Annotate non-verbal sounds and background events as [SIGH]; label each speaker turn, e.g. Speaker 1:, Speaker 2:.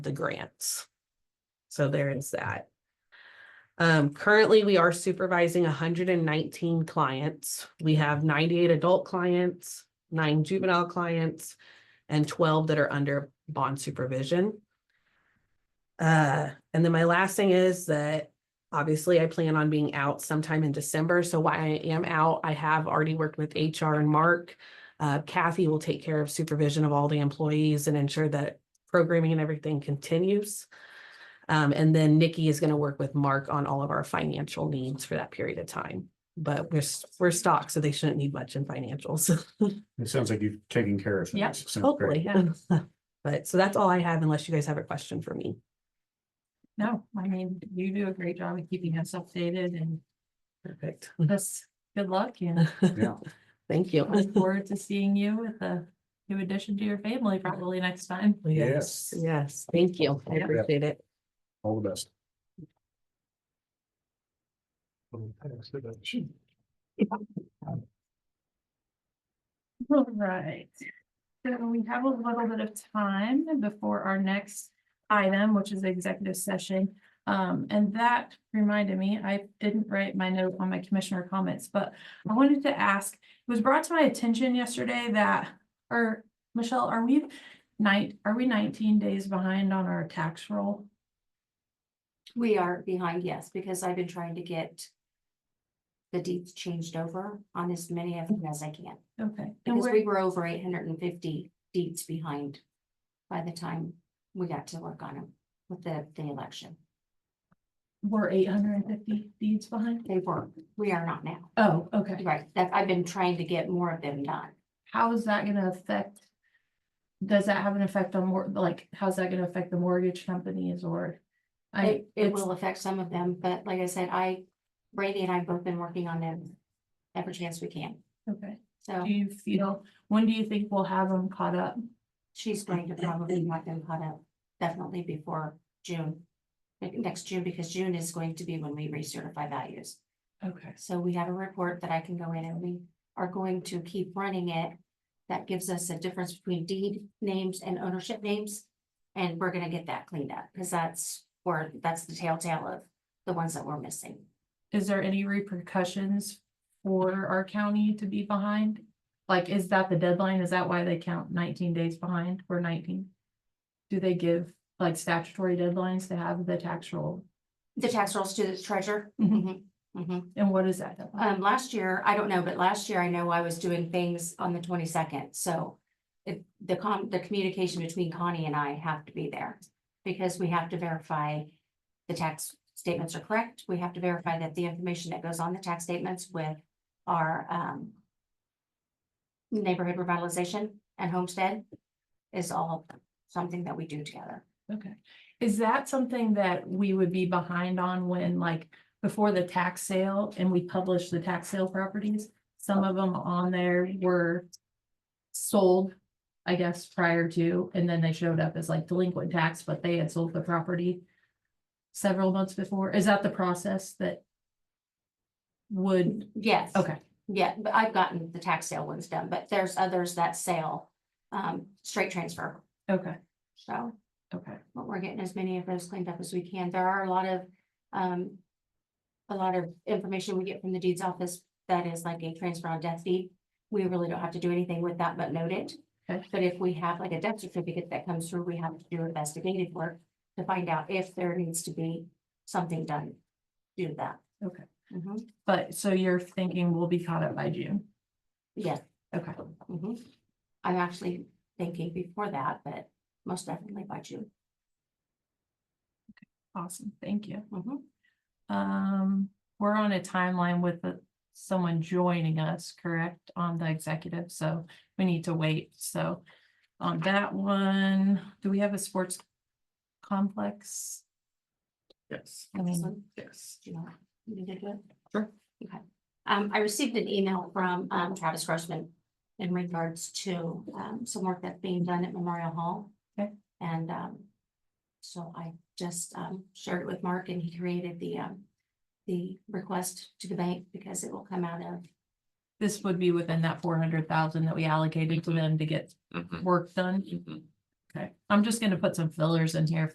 Speaker 1: the grants. So there is that. Um, currently, we are supervising hundred and nineteen clients. We have ninety-eight adult clients, nine juvenile clients, and twelve that are under bond supervision. Uh, and then my last thing is that obviously I plan on being out sometime in December. So while I am out, I have already worked with HR and Mark. Uh, Kathy will take care of supervision of all the employees and ensure that programming and everything continues. Um, and then Nikki is gonna work with Mark on all of our financial needs for that period of time. But we're, s- we're stocked, so they shouldn't need much in financials, [LAUGHS]
Speaker 2: It sounds like you've taken care of things.
Speaker 3: Yep,
Speaker 2: Sounds great.
Speaker 1: hopefully. [LAUGHS] But, so that's all I have unless you guys have a question for me.
Speaker 3: No, I mean, you do a great job of keeping us updated and
Speaker 1: Perfect.
Speaker 3: us, good luck and
Speaker 2: Yeah.
Speaker 1: Thank you.
Speaker 3: look forward to seeing you with a new addition to your family probably next time.
Speaker 2: Yes.
Speaker 1: Yes, thank you. I
Speaker 3: Yeah.
Speaker 1: appreciate it.
Speaker 2: All the best.
Speaker 3: All right. So we have a little bit of time before our next item, which is executive session. Um, and that reminded me, I didn't write my note on my commissioner comments, but I wanted to ask, it was brought to my attention yesterday that, or Michelle, are we night, are we nineteen days behind on our tax roll?
Speaker 4: We are behind, yes, because I've been trying to get the deeds changed over on as many of them as I can,
Speaker 3: Okay. and
Speaker 4: because
Speaker 3: where-
Speaker 4: we were over eight hundred and fifty deeds behind by the time we got to work on them with the, the election.
Speaker 3: We're eight hundred and fifty deeds behind?
Speaker 4: They were, we are not now,
Speaker 3: Oh, okay.
Speaker 4: right, that, I've been trying to get more of them done.
Speaker 3: How is that gonna affect? Does that have an effect on more, like, how's that gonna affect the mortgage companies or? I,
Speaker 4: It, it
Speaker 3: it's,
Speaker 4: will affect some of them, but like I said, I, Brady and I have both been working on them every chance we can,
Speaker 3: okay.
Speaker 4: so
Speaker 3: Do you feel, when do you think we'll have them caught up?
Speaker 4: she's going to probably want them caught up definitely before June. like, Next June, because June is going to be when we recertify values.
Speaker 3: Okay.
Speaker 4: So we have a report that I can go in and we are going to keep running it. That gives us a difference between deed names and ownership names. And we're gonna get that cleaned up, because that's, or that's the telltale of the ones that we're missing.
Speaker 3: Is there any repercussions for our county to be behind? Like, is that the deadline? Is that why they count nineteen days behind or nineteen? Do they give like statutory deadlines to have the tax roll?
Speaker 4: The tax rolls to the treasurer.
Speaker 3: Mhm.
Speaker 4: Mhm.
Speaker 3: And what is that? deadline?
Speaker 4: Um, last year, I don't know, but last year I know I was doing things on the twenty-second, so. It, the com, the communication between Connie and I have to be there, because we have to verify. The tax statements are correct, we have to verify that the information that goes on the tax statements with our, um. Neighborhood revitalization and homestead is all something that we do together.
Speaker 3: Okay, is that something that we would be behind on when like before the tax sale and we publish the tax sale properties? Some of them on there were sold, I guess, prior to, and then they showed up as like delinquent tax, but they had sold the property several months before. Is that the process that would,
Speaker 4: Yes.
Speaker 3: okay,
Speaker 4: Yeah, but I've gotten the tax sale ones done, but there's others that sell, um, straight transfer.
Speaker 3: okay,
Speaker 4: So,
Speaker 3: okay,
Speaker 4: but we're getting as many of those cleaned up as we can. There are a lot of, um. A lot of information we get from the deeds office that is like a transfer on death deed. We really don't have to do anything with that but note it.
Speaker 3: Okay.
Speaker 4: But if we have like a death certificate that comes through, we have to do investigative work to find out if there needs to be something done. due to that.
Speaker 3: okay.
Speaker 4: Mhm.
Speaker 3: But so you're thinking we'll be caught up by June?
Speaker 4: Yeah,
Speaker 3: Okay,
Speaker 4: Mhm. I'm actually thinking before that, but most definitely by June.
Speaker 3: awesome, thank you.
Speaker 4: Mhm.
Speaker 3: Um, we're on a timeline with uh, someone joining us, correct, on the executive, so we need to wait, so. On that one, do we have a sports complex?
Speaker 1: Yes.
Speaker 3: I mean,
Speaker 4: Excellent.
Speaker 1: Yes.
Speaker 4: Do you want me to do it?
Speaker 1: Sure.
Speaker 4: Okay. Um, I received an email from, um, Travis Grossman in regards to, um, some work that's being done at Memorial Hall.
Speaker 3: Okay.
Speaker 4: And, um, so I just, um, shared it with Mark and he created the, um, the request to the bank because it will come out of,
Speaker 3: This would be within that four hundred thousand that we allocated to them to get work done. Okay, I'm just gonna put some fillers in here